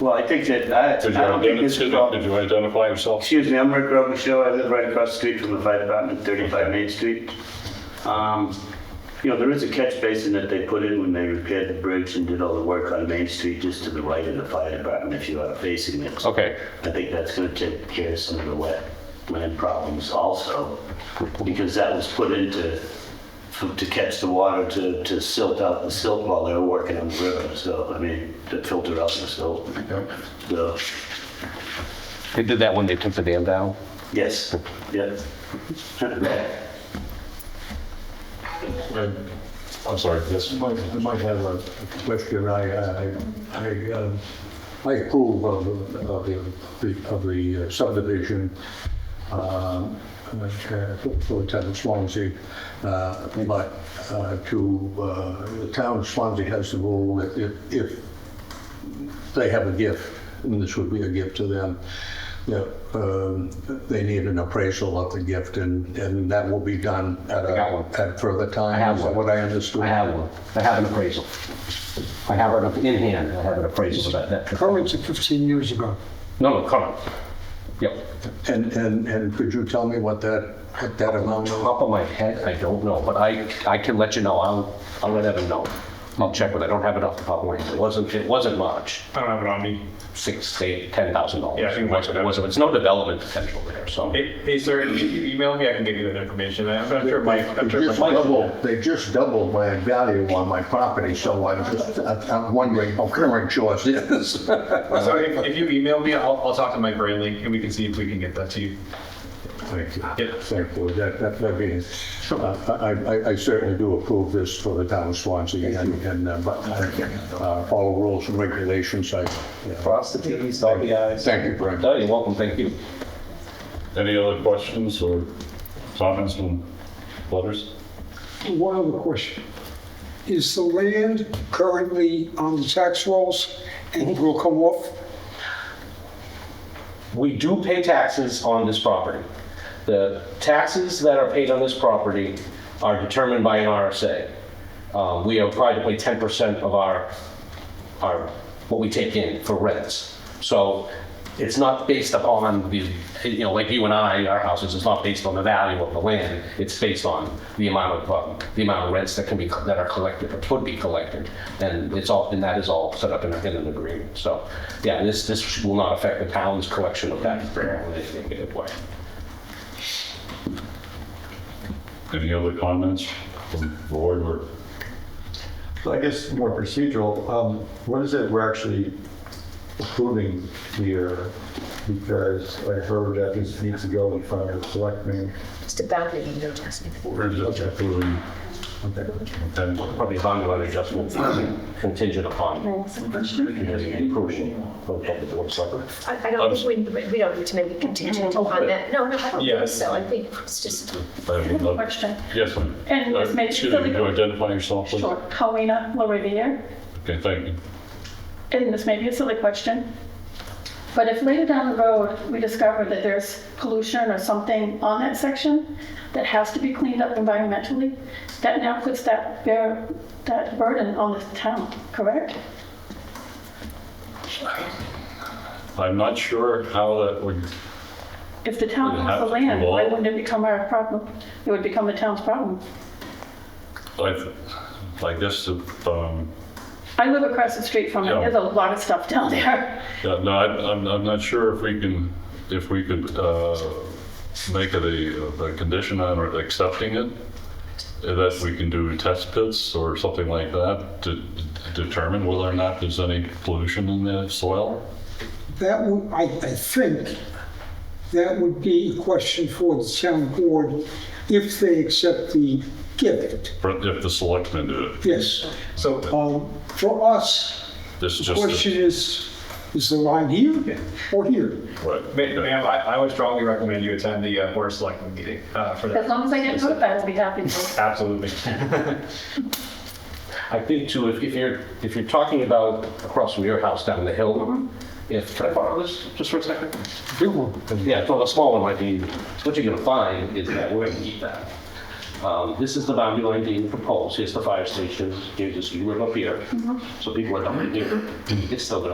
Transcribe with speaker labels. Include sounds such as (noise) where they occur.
Speaker 1: Well, I think that, I, I
Speaker 2: Did you
Speaker 1: don't think
Speaker 2: identi-
Speaker 1: this is
Speaker 2: excuse
Speaker 1: a
Speaker 2: me,
Speaker 1: problem.
Speaker 2: did you identify yourself?
Speaker 1: Excuse me, I'm Rick Robichaud. I live right across the street from the fire department, 35 Main Street. Um, You know, there is a catch basin that they put in when they repaired the bridge and did all the work on Main Street, just to the right of the fire department, if you are facing it.
Speaker 2: Okay,
Speaker 1: I think that's going to take care of some of the wetland problems also, because that was put in to, for- to catch the water, to, to silt out the silt while they were working on the river, so, I mean, to filter out the silt. So,
Speaker 3: They did that when they took the dam down. (laughs)
Speaker 1: yes, yeah. (laughs)
Speaker 2: And- I'm sorry, yes.
Speaker 4: I might- I might have a question. I, I, I, um, I approve of, of the, of the uh, subdivision, um, uh, for the town of Swansea. Uh, but, uh, to, uh, the town of Swansea has the rule that if, if they have a gift, and this would be a gift to them, that, um, they need an appraisal of the gift and, and that will be done at
Speaker 3: I got one.
Speaker 4: a, at further time.
Speaker 3: I have
Speaker 4: is
Speaker 3: one.
Speaker 4: What I understood.
Speaker 3: I have one. I have an appraisal. I have it up in hand. I have an appraisal of that. that-
Speaker 5: Current to 15 years ago.
Speaker 3: No, no, current. Yep.
Speaker 4: And, and, and could you tell me what that, what that amount of?
Speaker 3: Top of my head, I don't know, but I, I can let you know. I'll, I'll let Evan know. I'll check with, I don't have it off the top of my head. It wasn't, it wasn't much.
Speaker 6: I don't have it on me.
Speaker 3: Six, eight, ten thousand dollars.
Speaker 6: Yeah, I think it was.
Speaker 3: It wasn't, it's no development potential there, so.
Speaker 6: Hey, hey, sir, if you email me, I can get you that information. I- I'm not sure Mike, I'm
Speaker 4: They
Speaker 6: sure
Speaker 4: just
Speaker 6: Mike.
Speaker 4: doubled, they just doubled my value on my property, so I'm just, I'm wondering how current yours is.
Speaker 6: So if, if you email me, I'll, I'll talk to Mike Brantley and we can see if we can get that to you.
Speaker 4: Thank you.
Speaker 6: Yeah.
Speaker 4: Thank you. That, that, that means, I, I, I certainly do approve this for the town of Swansea and, and, uh, but, uh, all rules and regulations, I, yeah.
Speaker 3: Across the T's, dot the i's.
Speaker 4: Thank you, Brent.
Speaker 3: No, you're welcome. Thank you.
Speaker 2: Any other questions or comments from others?
Speaker 5: One other question. Is the land currently on the tax rolls and will come off?
Speaker 3: we do pay taxes on this property. The taxes that are paid on this property are determined by an RSA. Um, We are required to pay 10% of our, our, what we take in for rents. So it's not based upon the, you know, like you and I, our houses, it's not based on the value of the land. It's based on the amount of, um, the amount of rents that can be, that are collected, or could be collected. And it's all, and that is all set up in a- in an agreement. So, yeah, this, this will not affect the town's collection of that in any negative way.
Speaker 2: Any other comments from the board or?
Speaker 7: So I guess more procedural, um, what is it we're actually approving here? Because I heard that this needs to go in front of the selectmen.
Speaker 8: It's the boundary window adjustment.
Speaker 2: We're just approving. Okay.
Speaker 3: Probably bond loan adjustment contingent upon the approval of the board of selectmen.
Speaker 8: I I don't think we, we don't need to make it contingent
Speaker 9: Oh,
Speaker 8: upon that. No, no, I don't
Speaker 6: Yeah.
Speaker 8: think so. I think it's just,
Speaker 2: I would love-
Speaker 9: Question.
Speaker 2: Yes, ma'am.
Speaker 9: And
Speaker 2: Uh,
Speaker 9: this may be
Speaker 2: Excuse me,
Speaker 9: silly,
Speaker 2: could you identify yourself, please?
Speaker 9: Sure. Paulina LaRiviere.
Speaker 2: Okay, thank you.
Speaker 9: And this may be a silly question, but if later down the road, we discover that there's pollution or something on that section that has to be cleaned up environmentally, that now puts that bear, that burden on the town, correct?
Speaker 2: I'm not sure how that would,
Speaker 9: If the town
Speaker 2: It
Speaker 9: owns the
Speaker 2: has to
Speaker 9: land, why
Speaker 2: evolve.
Speaker 9: wouldn't it become our problem? It would become the town's problem.
Speaker 2: I, I guess, um,
Speaker 9: I live across the street from it,
Speaker 2: Yeah.
Speaker 9: there's a lot of stuff down there.
Speaker 2: Yeah, no, I- I'm, I'm not sure if we can, if we could uh, make it a, a condition on accepting it, that we can do test pits or something like that to determine whether or not there's any pollution in the soil.
Speaker 5: That would, I, I think, that would be a question for the town board if they accept the gift.
Speaker 2: But If the selectmen do it,
Speaker 5: Yes.
Speaker 6: So
Speaker 5: Um, For us,
Speaker 2: this is
Speaker 5: the
Speaker 2: just.
Speaker 5: question
Speaker 2: a-
Speaker 5: is, is the line here or here?
Speaker 2: right,
Speaker 6: Ma-
Speaker 2: okay.
Speaker 6: Ma'am, I, I would strongly recommend you attend the uh, Board of Selectmen meeting uh, for
Speaker 9: As
Speaker 6: that.
Speaker 9: long as I get notified, I'll be happy to.
Speaker 6: Absolutely.
Speaker 3: I think too, if, if you're, if you're talking about across from your house down the hill, if, Mm-hmm. can I borrow this just for a second? Yeah, so the small one might be, what you're gonna find is that we're gonna keep that. Um, this is the boundary line being Mm-hmm. proposed, here's the fire station, here's this, you live up here. So people are, gonna do it. it's still gonna